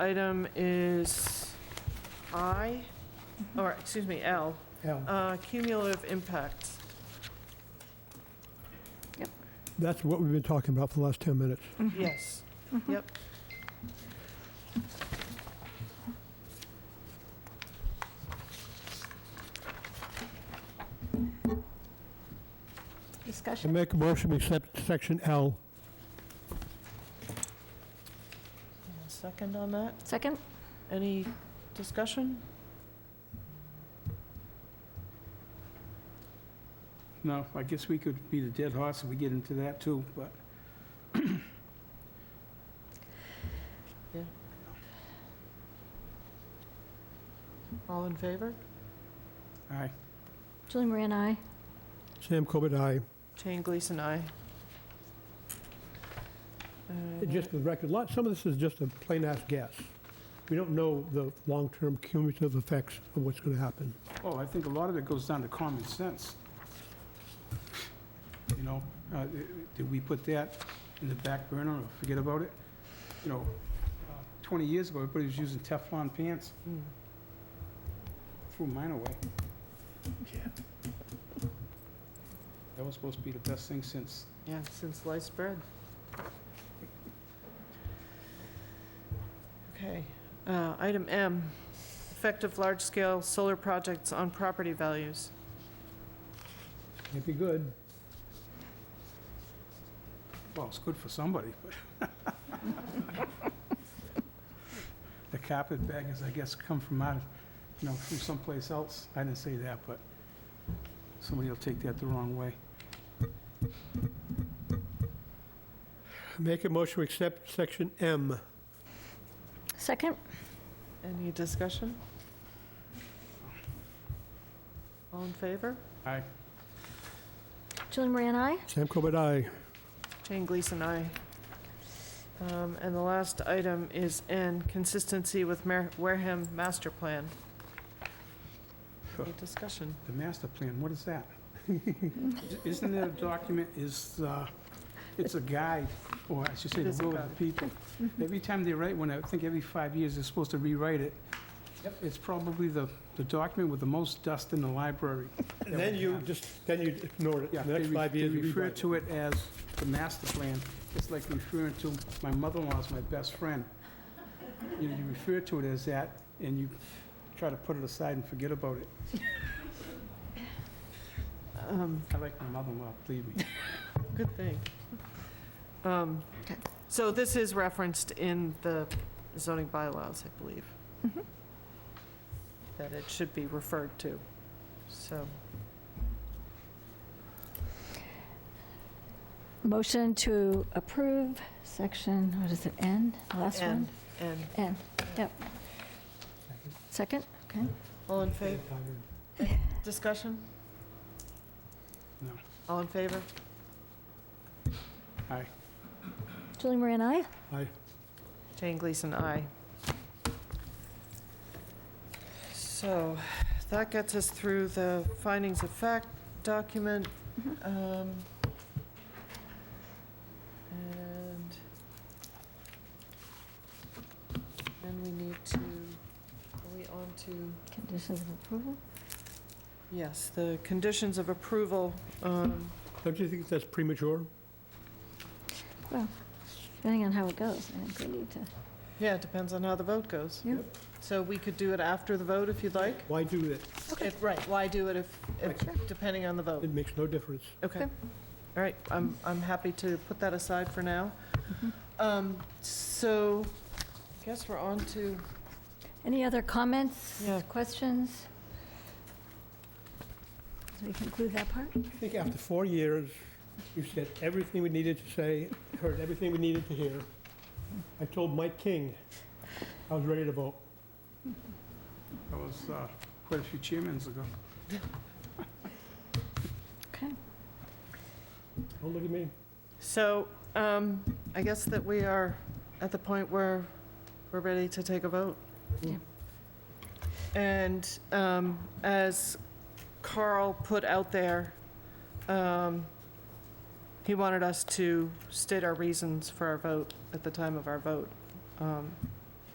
item is I, or, excuse me, L, Al, uh, cumulative impacts. That's what we've been talking about for the last 10 minutes. Yes, yep. I Discussion? make a motion to accept section L. Second on that? Second? Any discussion? No, I guess we could beat a dead horse if we get into that too, but All in favor? I, Julie Moran, aye. Sam Corbett, aye. Jane Gleason, aye. Uh, Just for the record, a lot, some of this is just a plain-ass guess. We don't know the long-term cumulative effects of what's going to happen. oh, I think a lot of it goes down to common sense. You know, uh, did we put that in the back burner or forget about it? You know, uh, 20 years ago, everybody was using Teflon pants, mm. threw mine away. That was supposed to be the best thing since, Yeah, since sliced bread. Okay, uh, item M, effect of large-scale solar projects on property values. It'd be good. well, it's good for somebody, but... The carpetbaggers, I guess, come from out, of you know, from someplace else. I didn't say that, but somebody will take that the wrong way. Make a motion to accept section M. Second? Any discussion? All in favor? Aye. Julie Moran, aye. Sam Corbett, aye. Jane Gleason, aye. Um, And the last item is N, consistency with Mar- Wareham master plan. Any discussion? The master plan, what is that? Isn't that a document, is, uh, it's a guide, or I should say, It is a the will of guide. the people. Every time they write one, I think every five years, they're supposed to rewrite it. It's probably the, the document with the most dust in the library. And then you just, then you ignored it. Yeah, The they next re- five they years, you refer rewrite it. to it as the master plan. It's like referring to, my mother-in-law's my best friend. You know, you refer to it as that, and you try to put it aside and forget about it. Um, I like my mother-in-law, believe me. Good thing. Um, Okay. So this is referenced in the zoning bylaws, I believe. Mhm. That it should be referred to, so. Motion to approve section, what is it, N? The Last N, one? N. N, yep. Second? Okay. All in favor? Discussion? No. All in favor? Julie Moran, aye. Aye. Jane Gleason, aye. So that gets us through the findings of fact document. um, And then we need to, are we on to, Conditions of approval? yes, the conditions of approval. um, Don't you think that's premature? Depending on how it goes, I think we need to, Yeah, it depends on how the vote goes. yeah. So we could do it after the vote if you'd like. Why do that? If- Right, why do it if, if- Right. depending on the vote? It makes no difference. Okay. Okay. All right, I'm, I'm happy to put that aside for now. Mm-hmm. Um, So, I guess we're on to, Any other comments, Yeah. questions? As we conclude that part? I think after four years, you said everything we needed to say, heard everything we needed to hear. I told Mike King I was ready to vote. That was uh, quite a few chairmans ago. Okay. Don't look at me. so um, I guess that we are at the point where we're ready to take a vote. Yeah. And um, as Carl put out there, um, he wanted us to state our reasons for our vote at the time of our vote. Um,